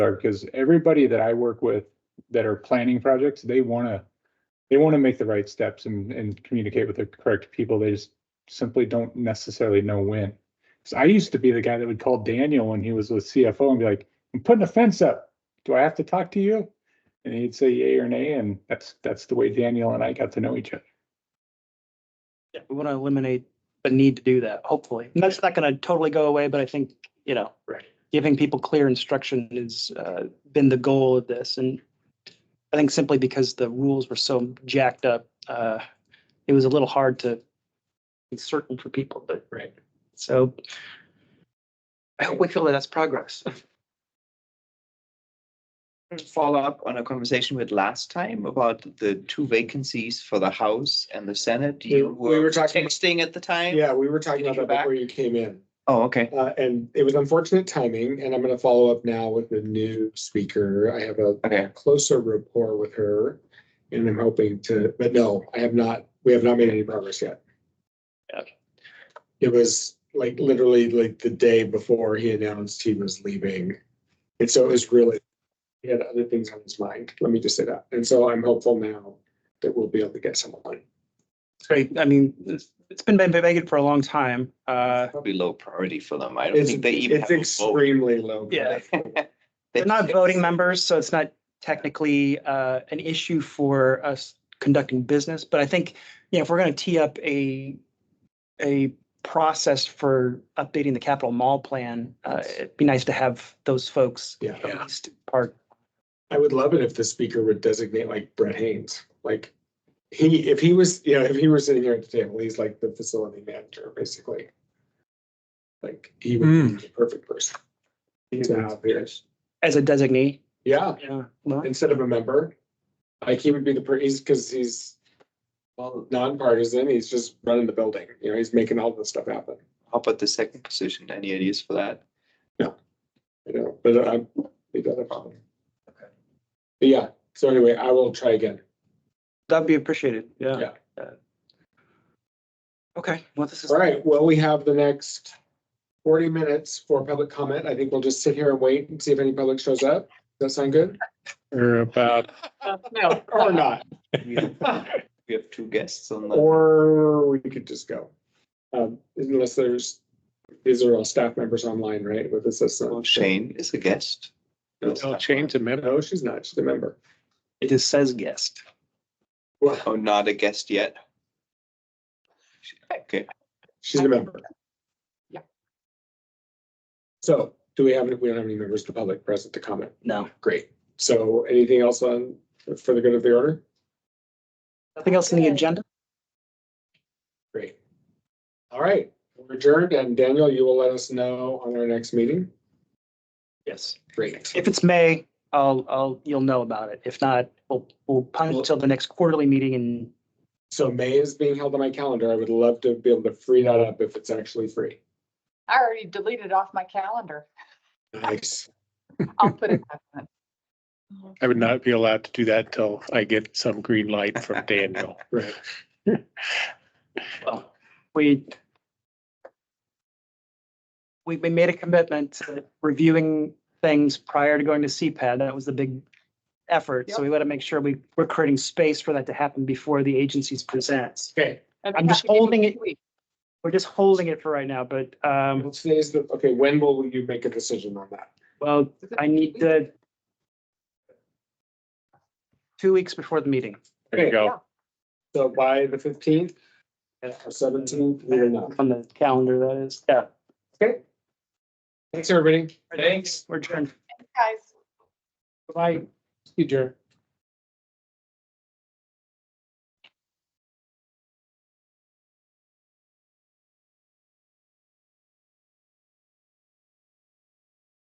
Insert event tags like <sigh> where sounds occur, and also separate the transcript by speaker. Speaker 1: are, because everybody that I work with that are planning projects, they want to, they want to make the right steps and, and communicate with the correct people. They just simply don't necessarily know when. So I used to be the guy that would call Daniel when he was with CFO and be like, I'm putting a fence up. Do I have to talk to you? And he'd say yay or nay, and that's, that's the way Daniel and I got to know each other.
Speaker 2: Yeah, we want to eliminate the need to do that, hopefully. And that's not going to totally go away, but I think, you know,
Speaker 1: Right.
Speaker 2: giving people clear instruction has uh, been the goal of this. And I think simply because the rules were so jacked up, uh, it was a little hard to be certain for people, but.
Speaker 1: Right.
Speaker 2: So I hope we feel that that's progress.
Speaker 3: follow up on a conversation with last time about the two vacancies for the House and the Senate.
Speaker 4: We-
Speaker 3: You
Speaker 4: we
Speaker 3: were
Speaker 4: were talking-
Speaker 3: texting at the time?
Speaker 4: Yeah, we were talking
Speaker 3: Did you
Speaker 4: about
Speaker 3: go
Speaker 4: that
Speaker 3: back?
Speaker 4: before you came in.
Speaker 3: Oh, okay.
Speaker 4: Uh, and it was unfortunate timing, and I'm gonna follow up now with the new speaker. I have a
Speaker 3: Okay.
Speaker 4: closer rapport with her. And I'm hoping to, but no, I have not, we have not made any progress yet.
Speaker 2: Okay.
Speaker 4: It was like literally like the day before he announced he was leaving. And so it was really, he had other things on his mind, let me just say that. And so I'm hopeful now that we'll be able to get someone.
Speaker 2: Great. I mean, it's it's been vacant for a long time. Uh,
Speaker 3: Probably low priority for them. I don't
Speaker 4: It's,
Speaker 3: think they even
Speaker 4: it's
Speaker 3: have a vote.
Speaker 4: extremely low.
Speaker 2: Yeah.
Speaker 3: They-
Speaker 2: They're not voting members, so it's not technically uh, an issue for us conducting business. But I think, you know, if we're going to tee up a, a process for updating the Capitol Mall plan, uh, it'd be nice to have those folks
Speaker 4: <laughs> Yeah.
Speaker 2: at least part.
Speaker 4: I would love it if the speaker would designate like Brett Haynes, like he, if he was, you know, if he were sitting here at the table, he's like the facility manager, basically. Like he would be the perfect person. to have here.
Speaker 2: As a designee.
Speaker 4: Yeah,
Speaker 2: Yeah. well,
Speaker 4: instead of a member, like he would be the, per- he's, because he's
Speaker 3: Well,
Speaker 4: nonpartisan, he's just running the building, you know, he's making all this stuff happen.
Speaker 3: How about the second position? Any ideas for that?
Speaker 4: You know, but I'm, it doesn't bother me. But Yeah, so anyway, I will try again.
Speaker 2: That'd be appreciated. Yeah.
Speaker 4: Yeah.
Speaker 2: Yeah. Okay, well, this is.
Speaker 4: All right, well, we have the next forty minutes for public comment. I think we'll just sit here and wait and see if any public shows up. Does that sound good?
Speaker 1: Or about,
Speaker 2: No.
Speaker 4: Or not,
Speaker 3: We have we have two guests on the.
Speaker 4: or we could just go. Um, unless there's, these are all staff members online, right, with
Speaker 3: Oh,
Speaker 4: assistants?
Speaker 3: Shane is a guest.
Speaker 1: no, Shane's a member.
Speaker 4: No, she's not, she's a member.
Speaker 2: It just says guest.
Speaker 4: Well,
Speaker 3: Oh, not a guest yet. Okay.
Speaker 4: she's a member. Yeah. So, do we have, we don't have any members of the public present to comment?
Speaker 2: No.
Speaker 4: Great. So anything else on, for the good of the order?
Speaker 2: Nothing else in the agenda?
Speaker 4: Great. All right, we're adjourned, and Daniel, you will let us know on our next meeting.
Speaker 2: Yes.
Speaker 4: Great.
Speaker 2: If it's May, I'll, I'll, you'll know about it. If not, we'll, we'll punt until the next quarterly meeting and
Speaker 4: So May is being held on my calendar. I would love to be able to free that up if it's actually free.
Speaker 5: I already deleted off my calendar.
Speaker 4: Nice.
Speaker 5: I'll put it back
Speaker 2: <laughs>
Speaker 5: on.
Speaker 6: I would not be allowed to do that till I get some green light from Daniel.
Speaker 4: Right.
Speaker 2: well, we we, we made a commitment to reviewing things prior to going to CPAD. That was the big effort. So we want to make sure we, we're creating space for that to happen before the agencies presents.
Speaker 4: Okay,
Speaker 5: That's
Speaker 2: I'm just
Speaker 5: not gonna be
Speaker 2: holding it-
Speaker 5: this week.
Speaker 2: We're just holding it for right now, but, um,
Speaker 4: well, today's the, okay, when will you make a decision on that?
Speaker 2: well, I need to two weeks before the meeting.
Speaker 6: There you go.
Speaker 4: So by the fifteenth or seventeenth, we will know.
Speaker 2: On the calendar, that is. Yeah.
Speaker 4: Okay. Thanks, everybody.
Speaker 2: Thanks. We're turned.
Speaker 5: Guys.
Speaker 2: Bye.
Speaker 4: You, Jer.